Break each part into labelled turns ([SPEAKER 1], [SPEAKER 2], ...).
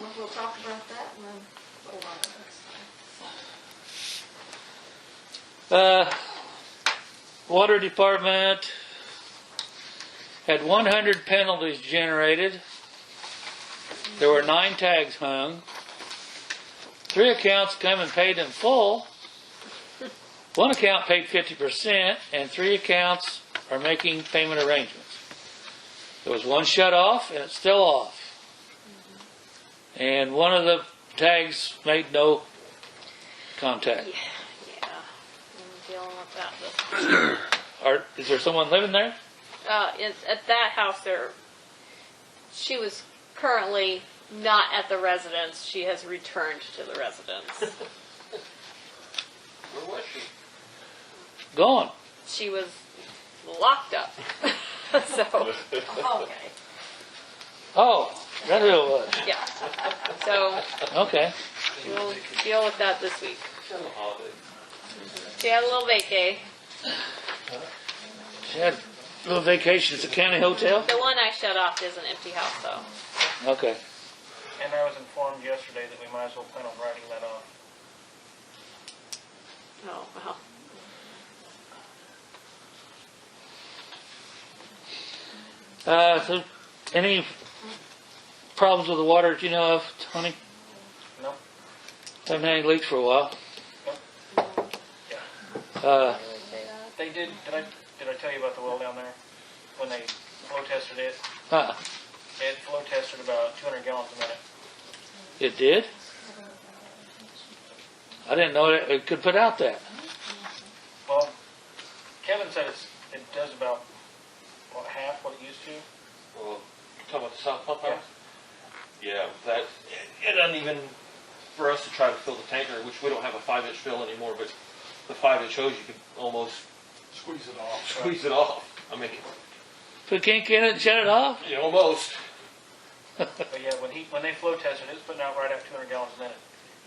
[SPEAKER 1] we'll talk about that in a little while. that's fine.
[SPEAKER 2] Uh, Water Department had 100 penalties generated. There were nine tags hung. Three accounts come and paid in full. One account paid 50%, and three accounts are making payment arrangements. There was one shut off, and it's still off. And one of the tags made no contact.
[SPEAKER 1] Yeah, yeah. I'm dealing with that. but-
[SPEAKER 2] Are, is there someone living there?
[SPEAKER 1] Uh, it's at that house there, she was currently not at the residence. She has returned to the residence.
[SPEAKER 3] Where was she?
[SPEAKER 2] Gone.
[SPEAKER 1] She was locked up. So, okay,
[SPEAKER 2] Oh, that's who it was.
[SPEAKER 1] yeah. So
[SPEAKER 2] Okay.
[SPEAKER 1] we'll deal with that this week.
[SPEAKER 3] She's on a holiday.
[SPEAKER 1] She had a little vacay.
[SPEAKER 2] She had a little vacation at the county hotel.
[SPEAKER 1] The one I shut off is an empty house though.
[SPEAKER 2] Okay.
[SPEAKER 4] And I was informed yesterday that we might as well plan on writing that off.
[SPEAKER 1] Oh, well.
[SPEAKER 2] Uh, so any problems with the water that you know of, Tony?
[SPEAKER 4] No.
[SPEAKER 2] Haven't had any leaks for a while. Uh,
[SPEAKER 4] They did, did I, did I tell you about the well down there? When they flow tested it,
[SPEAKER 2] uh,
[SPEAKER 4] it flow tested about 200 gallons a minute.
[SPEAKER 2] it did? I didn't know it, it could put out that.
[SPEAKER 4] Well, Kevin said it's, it does about, what, half what it used to?
[SPEAKER 3] Well, talking about the south pump house? Yeah, that, it- it doesn't even, for us to try to fill the tanker, which we don't have a five inch fill anymore, but the five inch hose, you could almost
[SPEAKER 5] Squeeze it off.
[SPEAKER 3] squeeze it off. I mean,
[SPEAKER 2] Put kink in it and shut it off?
[SPEAKER 3] you know, almost.
[SPEAKER 4] But yeah, when he, when they flow tested, it's putting out right at 200 gallons a minute.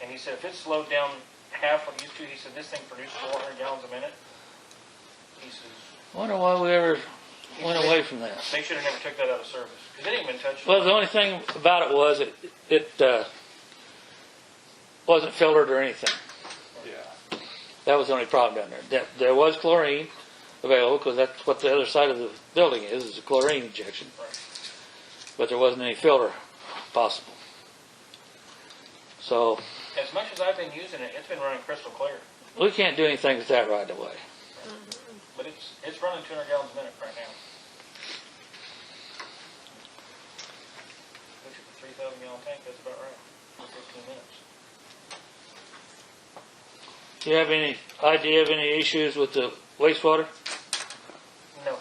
[SPEAKER 4] And he said if it slowed down half what it used to, he said this thing produced 400 gallons a minute. He says,
[SPEAKER 2] Wonder why we ever went away from that.
[SPEAKER 4] they should have never took that out of service, because it ain't been touched.
[SPEAKER 2] Well, the only thing about it was it, it, uh, wasn't filtered or anything.
[SPEAKER 3] Yeah.
[SPEAKER 2] That was the only problem down there. There, there was chlorine available because that's what the other side of the building is, is a chlorine injection.
[SPEAKER 4] Right.
[SPEAKER 2] But there wasn't any filter possible. So
[SPEAKER 4] As much as I've been using it, it's been running crystal clear,
[SPEAKER 2] we can't do anything with that right away.
[SPEAKER 4] but it's, it's running 200 gallons a minute right now. Which is a 3,000 gallon tank, that's about right, for 15 minutes.
[SPEAKER 2] Do you have any idea of any issues with the wastewater?
[SPEAKER 4] No,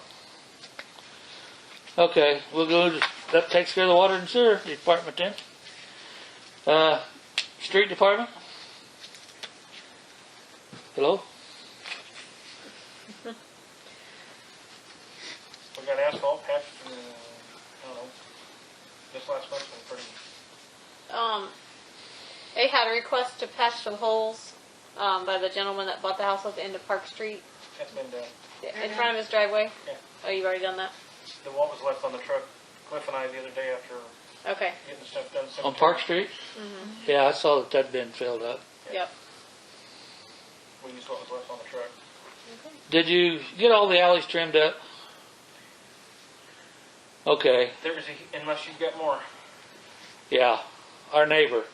[SPEAKER 2] Okay, we'll go, to- that takes care of the water and sewer department then. Uh, street department? Hello?
[SPEAKER 4] we got asphalt patched, uh, I don't know, this last month's been pretty,
[SPEAKER 1] Um, they had a request to patch some holes, um, by the gentleman that bought the house at the end of Park Street,
[SPEAKER 4] that's been done.
[SPEAKER 1] in front of his driveway.
[SPEAKER 4] Yeah.
[SPEAKER 1] Oh, you've already done that?
[SPEAKER 4] The what was left on the truck, Cliff and I the other day after
[SPEAKER 1] Okay,
[SPEAKER 4] getting stuff done.
[SPEAKER 2] On Park
[SPEAKER 4] cemetery,
[SPEAKER 2] Street?
[SPEAKER 4] Mm-hmm.
[SPEAKER 2] Yeah, I saw that that'd been filled up.
[SPEAKER 1] yep.
[SPEAKER 4] We used what was left on the truck.
[SPEAKER 2] Did you get all the alleys trimmed up? Okay,
[SPEAKER 4] There was a, unless you've got more.
[SPEAKER 2] yeah, our neighbor.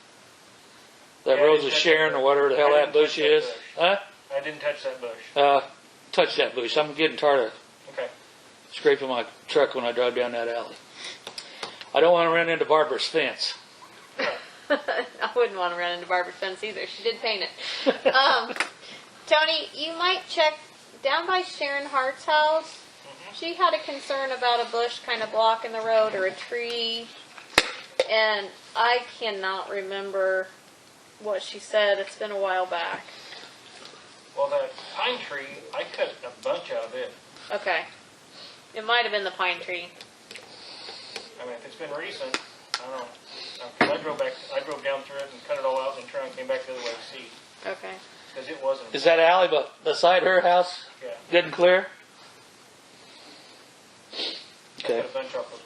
[SPEAKER 2] That
[SPEAKER 4] Yeah, I
[SPEAKER 2] Rosa
[SPEAKER 4] didn't touch
[SPEAKER 2] Sharon
[SPEAKER 4] that
[SPEAKER 2] or
[SPEAKER 4] bush.
[SPEAKER 2] whatever the hell
[SPEAKER 4] I
[SPEAKER 2] that
[SPEAKER 4] didn't
[SPEAKER 2] bush
[SPEAKER 4] touch that
[SPEAKER 2] is. Huh?
[SPEAKER 4] I didn't touch that bush.
[SPEAKER 2] Uh, touch that bush. I'm getting tired of
[SPEAKER 4] Okay.
[SPEAKER 2] scraping my truck when I drive down that alley. I don't wanna run into Barbara's fence.
[SPEAKER 1] I wouldn't want to run into Barbara Fence either. She did paint it. um, Tony, you might check down by Sharon Hart's house. She had a concern about a bush kind of blocking the road or a tree. And I cannot remember what she said. It's been a while back.
[SPEAKER 4] Well, that pine tree, I cut a bunch out of it.
[SPEAKER 1] Okay. It might have been the pine tree.
[SPEAKER 4] I mean, if it's been recent, I don't know. Uh, 'cause I drove back, I drove down through it and cut it all out and turned and came back the other way to see,
[SPEAKER 1] Okay.
[SPEAKER 4] because it wasn't.
[SPEAKER 2] Is that alley but beside her house
[SPEAKER 4] Yeah,
[SPEAKER 2] good and clear?
[SPEAKER 4] I cut
[SPEAKER 2] Okay,
[SPEAKER 4] a bunch off those